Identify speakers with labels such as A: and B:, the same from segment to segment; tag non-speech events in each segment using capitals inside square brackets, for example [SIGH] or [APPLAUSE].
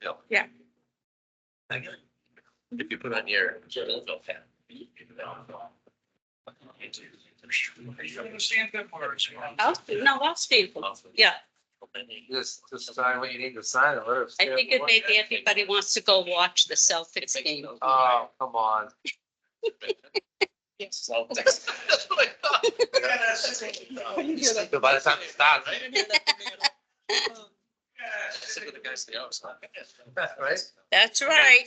A: Bill.
B: Yeah.
A: If you put on your.
B: Oh,
C: Understand that words.
B: I'll, no, I'll stay,
A: Oh,
B: yeah,
A: Just, just sign what you need to sign. and let us-
B: I think it maybe everybody wants to go watch the Celtics game.
A: Oh, come on. That's what I thought. By the time it
B: [LAUGHS]
A: starts. Sick of the guys, they always laugh. Right?
B: That's right.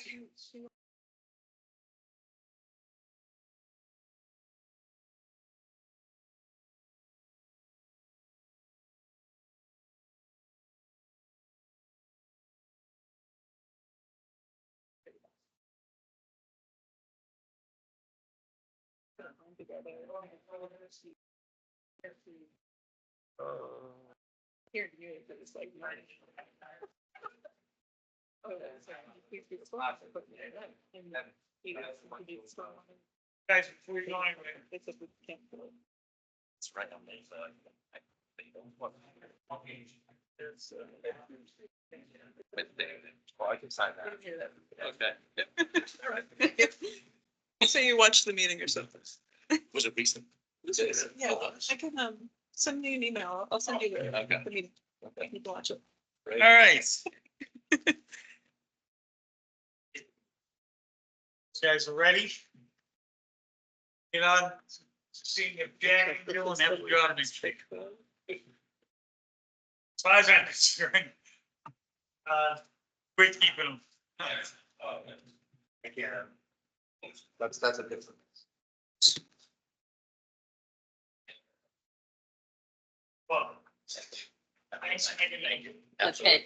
C: Here, you, it's like. mine. Oh, that's right. He's been swapped, but, yeah, and then he does, he gets swapped. Guys, before you go anywhere, it's a good camp.
A: It's right on the, uh, I- they don't want-
C: There's, uh,
A: but they- Well, Oh, I can sign that. Okay.
D: [LAUGHS] So you watched the meeting or
C: [LAUGHS]
D: something?
A: Was it recent? Oh,
D: Yeah, I can, um, send you an email. I'll send you the,
A: Okay.
D: the meeting.
A: Okay.
D: You can watch it.
C: All right. You Guys are ready? Get on, seeing if Jack and Dylan have a job next week. As far as I'm concerned. Uh, we're keeping them.
A: Yeah. That's, that's a different.
C: Well. Thanks, I didn't make it.
B: Okay.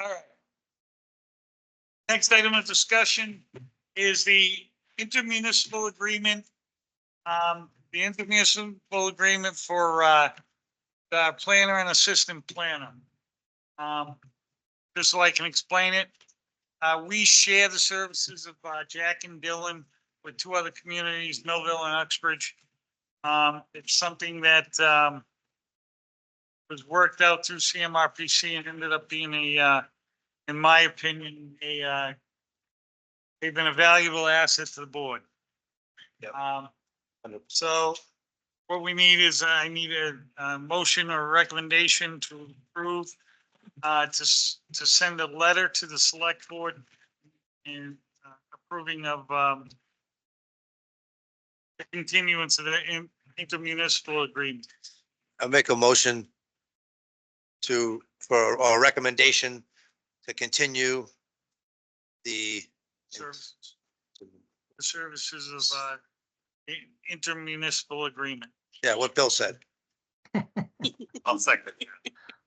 C: All right. Next item of discussion is the intermunicipal agreement. Um, the intermunicipal agreement for, uh, the planner and assistant planner. Um, just so I can explain it, uh, we share the services of, uh, Jack and Dylan with two other communities, Millville and Uxbridge. Um, it's something that, um, was worked out through CMRPC and ended up being a, uh, in my opinion, a, uh, they've been a valuable asset to the board.
A: Yep.
C: Um,
A: Hundred percent.
C: so what we need is uh, I need a, a motion or recommendation to approve, uh, to, s- to send a letter to the select board and uh, approving of, um, the continuance of the in- intermunicipal agreement.
E: I make a motion to, for, or recommendation to continue the,
C: Services. The services of, uh, i- intermunicipal agreement.
E: yeah, what Bill said.
A: I'll second.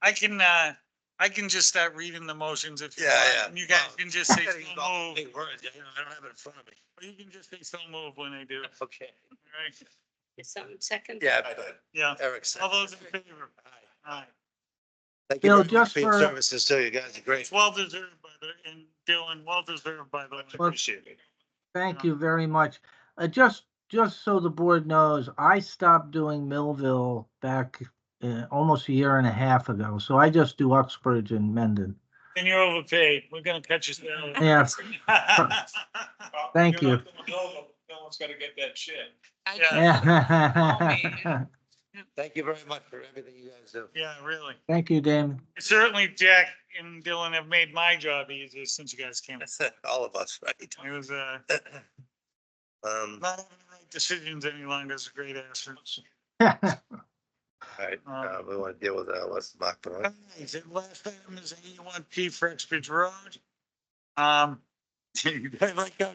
C: I can, uh, I can just start reading the motions if. you
E: Yeah,
C: want.
E: yeah. Oh.
C: And You guys can
E: [LAUGHS]
C: just say so
E: Big words,
C: move,
E: I don't have it in front of me.
C: or you can just say so move when I do, it,
A: Okay.
C: right?
B: Is someone second?
E: Yeah,
C: Yeah,
E: Eric said.
C: all those in favor, aye.
E: Thank
F: Bill,
E: you very much
F: just
E: for your
F: for-
E: services too. You guys are great.
C: It's well deserved by the, and Dylan, well deserved by the. way.
E: Appreciate it.
F: Thank
C: Yeah.
F: you very much. Uh, just, just so the board knows, I stopped doing Millville back uh, almost a year and a half ago. So I just do Uxbridge and Mendon.
C: And you're overpaid, we're gonna cut you down.
F: Yeah, Thank you.
C: No one's gonna get that shit.
B: I
C: Yeah.
F: yeah.
E: Thank you very much for everything you guys do.
C: [LAUGHS] Yeah, really.
F: [LAUGHS] Thank you, Damon. [LAUGHS]
C: Certainly Jack and Dylan have made my job easier since you guys came.
E: All of us,
C: [LAUGHS]
E: right?
C: It was, uh,
E: Um,
C: not having to make decisions any longer is a great answer.
E: all right,
C: Um,
E: uh, we want to deal with that. Let's knock it
C: all
E: on.
C: right, The last [LAUGHS] item is eighty-one P for Exbridge Road. Um, I like how